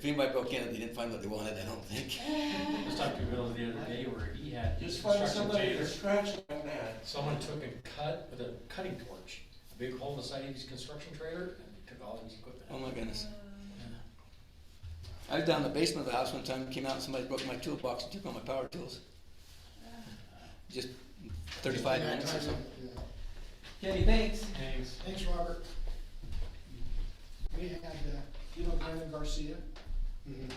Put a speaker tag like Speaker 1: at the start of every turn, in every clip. Speaker 1: Green Bay broke in, they didn't find what they wanted, I don't think.
Speaker 2: Just talked to Bill the other day where he had.
Speaker 3: Just find
Speaker 2: construction
Speaker 3: somebody
Speaker 2: tape.
Speaker 3: to scratch like that.
Speaker 2: Someone took and cut with a cutting torch, a big hole in the side of his construction trailer and took all of his equipment.
Speaker 1: Oh
Speaker 2: out.
Speaker 1: my goodness. I was down in the basement of the house one time, came out and somebody broke my toolbox and took all my power tools. Just thirty-five minutes or so.
Speaker 4: Yeah.
Speaker 5: Kenny, thanks.
Speaker 2: Thanks.
Speaker 4: Thanks, Robert. We had, uh, you know Brandon Garcia? Mm-hmm.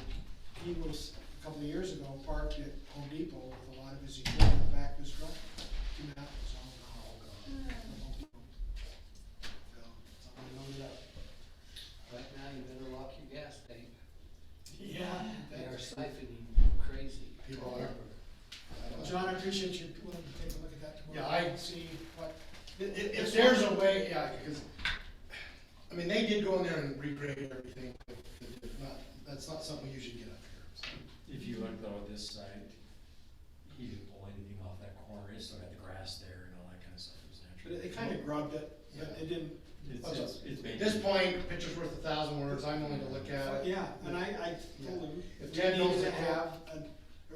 Speaker 4: He was, a couple of years ago, parked at Home Depot with a lot of his equipment in the back of his truck. Two mountains, all gone, all gone. Gone. Somebody loaded up.
Speaker 6: Right now, you better lock your gas tank.
Speaker 4: Yeah.
Speaker 6: They are siphoning crazy.
Speaker 4: People are. John, I appreciate you willing to take a look at that tomorrow.
Speaker 3: Yeah, I-
Speaker 4: See what,
Speaker 3: If, if there's a way, yeah, because, I mean, they did go in there and regrade everything, but not, that's not something we usually get up here, so.
Speaker 2: If you look though at this side, he didn't pull anything off that corner, he still got the grass there and all that kind of stuff, it was
Speaker 4: but
Speaker 2: natural.
Speaker 4: it- it kind of grubbed it, but
Speaker 3: Yeah.
Speaker 4: it didn't,
Speaker 2: It's, it's, it's.
Speaker 3: At
Speaker 2: made-
Speaker 3: this point, picture's worth a thousand words, I'm willing to look at it.
Speaker 4: Yeah, and I, I totally,
Speaker 3: If
Speaker 4: we
Speaker 3: Ted knows
Speaker 4: need to
Speaker 3: it,
Speaker 4: have a,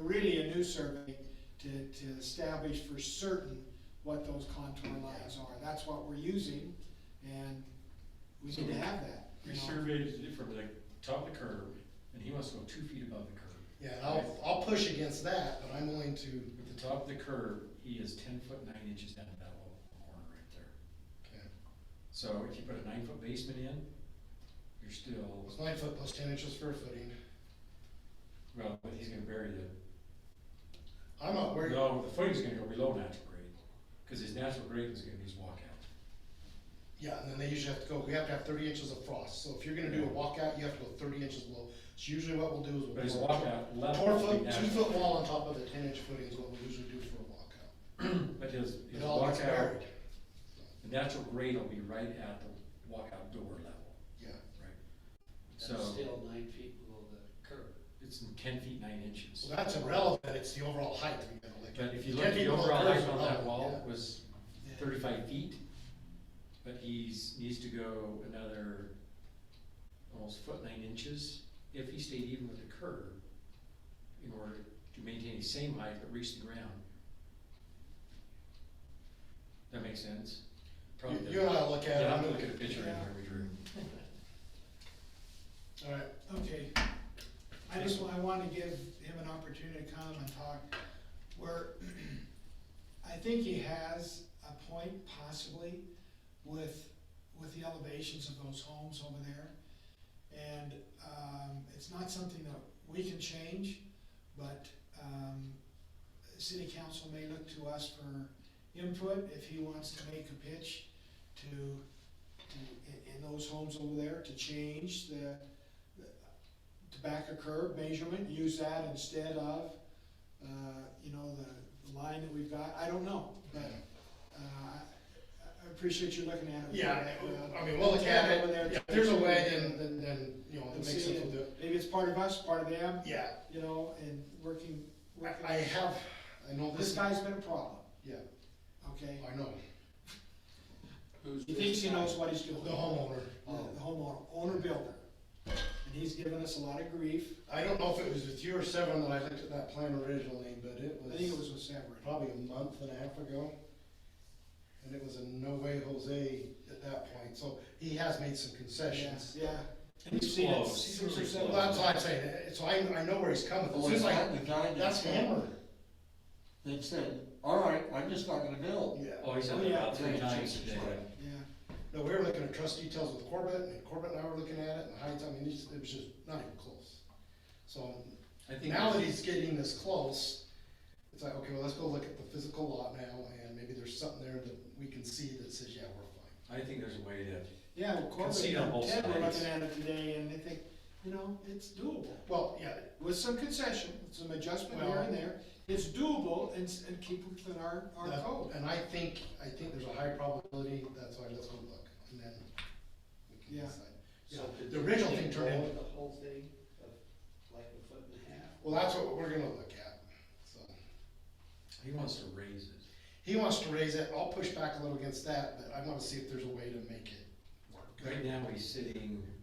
Speaker 4: really a new survey to, to establish for certain what those contour lines are. That's what we're using, and we need to have that. you
Speaker 2: We
Speaker 4: know.
Speaker 2: surveyed it from the top of the curb, and he wants to go two feet above the curb.
Speaker 3: Yeah, and I'll, I'll push against that, but I'm willing to,
Speaker 2: At the top of the curb, he is ten foot nine inches down that little corner right there.
Speaker 3: okay,
Speaker 2: So if you put a nine foot basement in, you're still,
Speaker 3: it's nine foot plus ten inches for a footing.
Speaker 2: well, but he's gonna bury the,
Speaker 3: I'm not worried,
Speaker 2: no, the footing's gonna go below natural grade, cause his natural grade is gonna be his walkout.
Speaker 3: yeah, and then they usually have to go, we have to have thirty inches of frost, so if you're gonna do a walkout, you have to go thirty inches below. So usually what we'll do is we'll.
Speaker 2: But his
Speaker 3: pour-
Speaker 2: walkout level
Speaker 3: Four
Speaker 2: will be
Speaker 3: foot, two
Speaker 2: natural,
Speaker 3: foot wall on top of the ten inch footing is what we usually do for a walkout.
Speaker 2: but his, his
Speaker 3: It all gets
Speaker 2: walkout,
Speaker 3: buried,
Speaker 2: the natural grade will be right at the walkout door level,
Speaker 3: yeah.
Speaker 2: right? So
Speaker 6: That's still nine feet below the curb.
Speaker 2: it's ten feet nine inches.
Speaker 3: Well, that's irrelevant, it's the overall height we gotta look at.
Speaker 2: But if you
Speaker 3: Ten
Speaker 2: look at the
Speaker 3: people
Speaker 2: overall
Speaker 3: curves
Speaker 2: height on
Speaker 3: are
Speaker 2: that
Speaker 3: low,
Speaker 2: wall
Speaker 3: yeah.
Speaker 2: was
Speaker 3: Yeah.
Speaker 2: thirty-five feet, but he's, needs to go another almost foot nine inches if he stayed even with the curb in order to maintain the same height but reach the ground. That makes sense? Probably
Speaker 3: You- You and
Speaker 2: doesn't.
Speaker 3: I will look at it.
Speaker 2: Yeah, I'm gonna look at a picture in here we drew.
Speaker 3: Alright,
Speaker 4: Okay, I just, wa- I wanna give him an opportunity to come and talk, where, I think he has a point possibly with, with the elevations of those homes over there. And, um, it's not something that we can change, but, um, city council may look to us for input if he wants to make a pitch to, to, in, in those homes over there, to change the, the tobacco curb measurement, use that instead of, uh, you know, the, the line that we've got, I don't know, but, uh, I I appreciate you looking at it.
Speaker 3: yeah,
Speaker 4: Uh,
Speaker 3: I mean, we'll look at
Speaker 4: over
Speaker 3: it,
Speaker 4: there.
Speaker 3: if there's a way, then, then, then, you know, it
Speaker 4: And
Speaker 3: makes
Speaker 4: see
Speaker 3: sense
Speaker 4: it.
Speaker 3: we'll do it.
Speaker 4: Maybe it's part of us, part of them,
Speaker 3: Yeah,
Speaker 4: you know, and working, working.
Speaker 3: I, I have, I know
Speaker 4: This
Speaker 3: this,
Speaker 4: guy's been a problem,
Speaker 3: yeah,
Speaker 4: okay?
Speaker 3: I know,
Speaker 6: Who's
Speaker 4: He thinks he
Speaker 6: this guy?
Speaker 4: knows what he's
Speaker 3: the
Speaker 4: doing.
Speaker 3: homeowner.
Speaker 4: The the homeowner, owner builder. And he's given us a lot of grief.
Speaker 3: I don't know if it was with you or Severin that I looked at that plan originally, but it
Speaker 4: I think it
Speaker 3: was
Speaker 4: was with Severin.
Speaker 3: probably a month and a half ago. And it was a no way Jose at that point, so he has made some concessions.
Speaker 4: Yeah, yeah.
Speaker 2: He's
Speaker 4: We've seen it
Speaker 2: close.
Speaker 4: six
Speaker 2: He's
Speaker 4: or
Speaker 2: really
Speaker 4: seven
Speaker 3: Well, that's why I'm saying, it. so I, I know where he's coming
Speaker 2: Oh,
Speaker 3: from,
Speaker 7: Well,
Speaker 3: it's just
Speaker 7: the
Speaker 3: like,
Speaker 7: guy, the guy that
Speaker 3: that's
Speaker 7: said-
Speaker 3: hammered.
Speaker 7: That said, all right, I'm just not gonna build.
Speaker 3: Yeah.
Speaker 2: Oh, he's had
Speaker 4: Oh,
Speaker 2: that
Speaker 4: yeah.
Speaker 2: about three times
Speaker 7: Change
Speaker 2: today.
Speaker 7: it.
Speaker 4: Yeah.
Speaker 3: No, we were looking at trust details with Corbett, and Corbett and I were looking at it, and Heights, I mean, it's- it was just not even close. So
Speaker 2: I think,
Speaker 3: now that he's getting this close, it's like, okay, well, let's go look at the physical lot now, and maybe there's something there that we can see that says, yeah, we're fine.
Speaker 2: I think there's a way to,
Speaker 4: Yeah, well, Corbin
Speaker 2: Concede on
Speaker 4: and
Speaker 2: both
Speaker 4: Ted were
Speaker 2: sides.
Speaker 4: looking at it today and they think, you know, it's doable.
Speaker 3: Well, yeah,
Speaker 4: With some concession, some adjustment here and there, it's doable and, s- and keep within our, our
Speaker 3: that-
Speaker 4: code.
Speaker 3: and I think, I think there's a high probability, that's why let's go look, and then we can
Speaker 4: Yeah.
Speaker 3: decide. Yeah,
Speaker 6: So could
Speaker 3: the original
Speaker 6: you
Speaker 3: thing turned
Speaker 6: blow
Speaker 3: in-
Speaker 6: The whole thing of like a foot and a half.
Speaker 3: Well, that's what we're gonna look at, so.
Speaker 2: he wants to raise it.
Speaker 3: He wants to raise it, I'll push back a little against that, but I wanna see if there's a way to make it work.
Speaker 2: Right now, he's sitting